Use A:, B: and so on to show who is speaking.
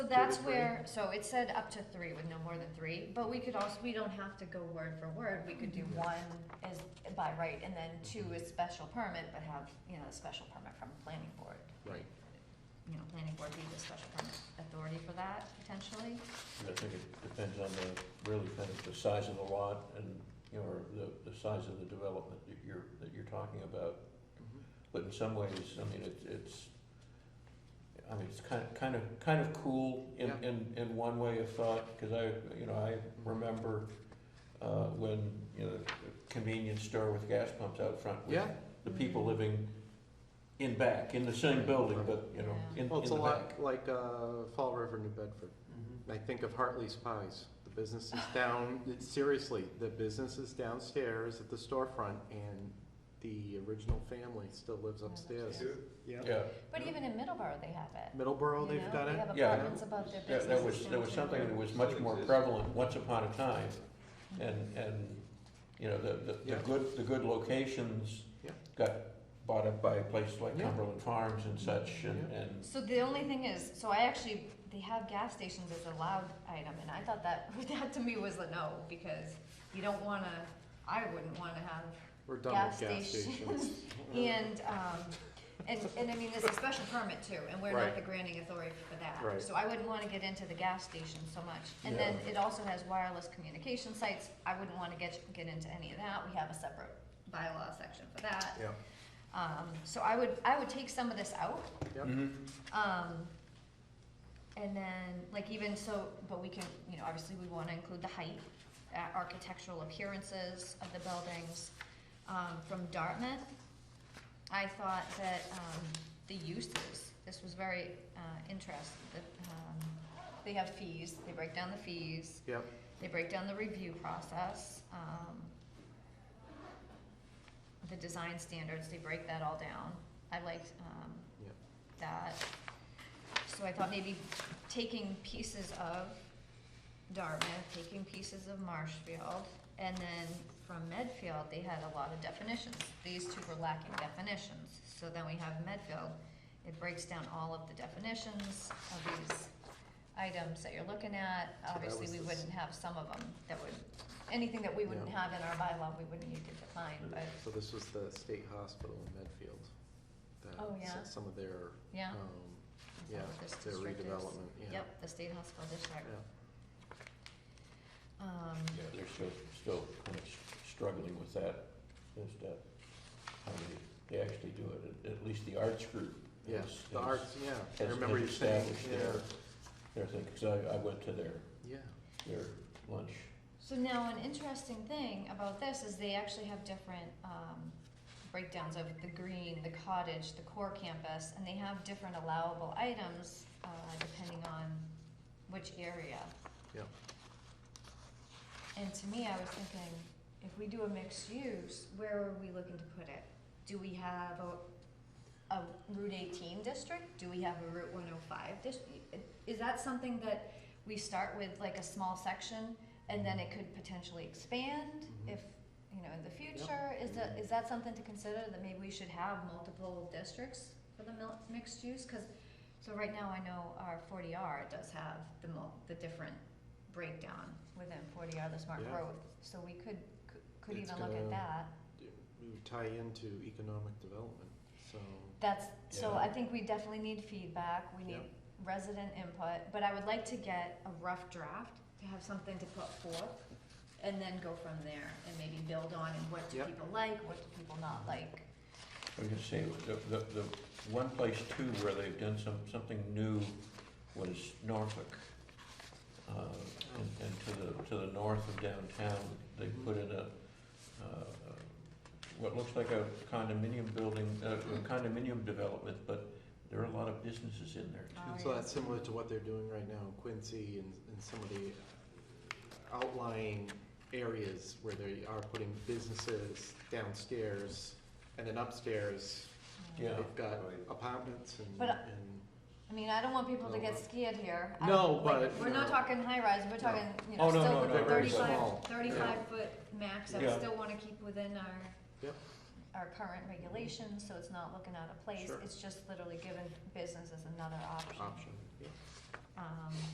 A: that's
B: three?
A: where, so it said up to three with no more than three, but we could also, we don't have to go word for word, we could do
C: Mm-hmm.
A: one is by right, and then two is special permit, but have, you know, a special permit from planning board.
B: Right.
A: You know, planning board be the special permit authority for that potentially,
C: I think it depends on the, really kind of the size of the lot and, you know, or the, the size of the development that you're, that you're talking about. But in some ways, I mean, it's, it's, I mean, it's kind of, kind of, kind of cool in,
B: Yeah.
C: in, in one way of thought, because I, you know, I remember, uh, when, you know, a convenience store with gas pumps out front with
B: Yeah,
C: the people living in back, in the same building, but, you know, in, in the back.
B: well, it's a lot like, uh, Fall River, New Bedford. I think of Hartley's Pies. The businesses down, it's seriously, the businesses downstairs at the storefront and the original family still lives
A: Yeah, that's
B: upstairs.
A: right.
C: Yeah,
A: but even in Middleborough, they have it.
B: Middleborough,
A: you
B: they've
A: know,
B: got
A: They
B: it.
A: have
C: Yeah.
A: apartments above their
C: Yeah,
A: businesses.
C: there was, there was
A: downtown.
C: something that was much more prevalent once upon a time, and, and, you know, the, the, the
B: Yeah.
C: good, the good locations
B: Yeah.
C: got bought up by places like
B: Yeah.
C: Cumberland Farms and such, and,
B: Yeah.
C: and,
A: So the only thing is, so I actually, they have gas stations as a loud item, and I thought that, that to me was a no, because you don't wanna, I wouldn't wanna have
B: We're done
A: gas
B: with gas stations.
A: stations. And, um, and, and I mean, there's a special permit too, and we're
B: Right.
A: not the granting authority for that.
B: Right.
A: So I wouldn't wanna get into the gas station so much. And then
C: Yeah.
A: it also has wireless communication sites, I wouldn't wanna get, get into any of that, we have a separate bylaw section for that.
B: Yeah.
A: Um, so I would, I would take some of this out,
B: Yep.
C: Mhm.
A: um, and then, like even so, but we can, you know, obviously we wanna include the height, uh, architectural appearances of the buildings. Um, from Dartmouth, I thought that, um, the uses, this was very, uh, interesting, that, um, they have fees, they break down the fees,
B: Yep,
A: they break down the review process, um, the design standards, they break that all down. I liked, um,
B: Yep.
A: that. So I thought maybe taking pieces of Dartmouth, taking pieces of Marshfield, and then from Medfield, they had a lot of definitions. These two were lacking definitions, so then we have Medfield. It breaks down all of the definitions of these items that you're looking at.
B: that
A: Obviously,
B: was
A: we
B: this-
A: wouldn't have some of them that would, anything that we wouldn't
B: Yeah.
A: have in our bylaw, we wouldn't need to define, but,
B: so this was the state hospital in Medfield. that
A: Oh,
B: s-
A: yeah.
B: Some of their,
A: yeah.
B: um,
A: that's
B: yeah,
A: what this
B: their
A: district is.
B: redevelopment, yeah.
A: Yep, the state hospital district.
B: Yeah.
A: Um,
C: yeah, they're still, still kind of s- struggling with that, as to how they, they actually do it, at, at least the arts group.
B: Yeah,
C: is-
B: the
C: is-
B: arts, yeah, I
C: has-
B: remember
C: has
B: you saying,
C: established
B: yeah,
C: their- Their thing, because I, I went to their,
B: yeah,
C: their lunch.
A: So now, an interesting thing about this is they actually have different um, breakdowns of the green, the cottage, the core campus, and they have different allowable items uh, depending on which area.
B: Yeah.
A: And to me, I was thinking, if we do a mixed use, where are we looking to put it? Do we have a, a Route eighteen district? Do we have a Route one oh five district? Is that something that we start with like a small section and then it could potentially expand
B: Mhm.
A: if, you know, in the future? Is that, is that something to consider that maybe we should have multiple districts for the mil- mixed use? Cause, so right now I know our forty R does have the mul- the different breakdown within forty R, the smart
B: Yeah.
A: growth. So we could, could- could
B: It's
A: even look at
B: gonna-
A: that.
B: we would tie into economic development, so,
A: That's, so
C: Yeah.
A: I think we definitely need feedback, we need
B: Yep.
A: resident input, but I would like to get a rough draft, to have something to put forth, and then go from there, and maybe build on, and what do
B: Yep.
A: people like, what do people not like?
C: I was gonna say, the, the, the one place too where they've done some, something new was Norfolk. Uh, and, and to the, to the north of downtown, they put in a, uh, what looks like a condominium building, uh, a condominium development, but there are a lot of businesses in there too.
A: Oh,
B: so
A: yeah.
B: that's similar to what they're doing right now in Quincy and, and some of the outlying areas where they are putting businesses downstairs, and then upstairs,
C: Yeah.
B: they've got apartments and,
A: But, uh,
B: and,
A: I mean, I don't want people to
B: No,
A: get
B: but-
A: scared here. I
B: No,
A: don't- like,
B: but-
A: We're not
B: no.
A: talking high rise, we're talking, you
C: Oh,
A: know,
C: no,
A: still
C: no,
A: with
C: no,
A: a
C: no,
B: small.
A: thirty-five, thirty-five foot max, I
C: Yeah.
A: still wanna keep within our
B: Yep.
A: our current regulations, so it's not looking out of place,
B: Sure.
A: it's just literally giving businesses another option.
B: option, yeah.
A: Um, um,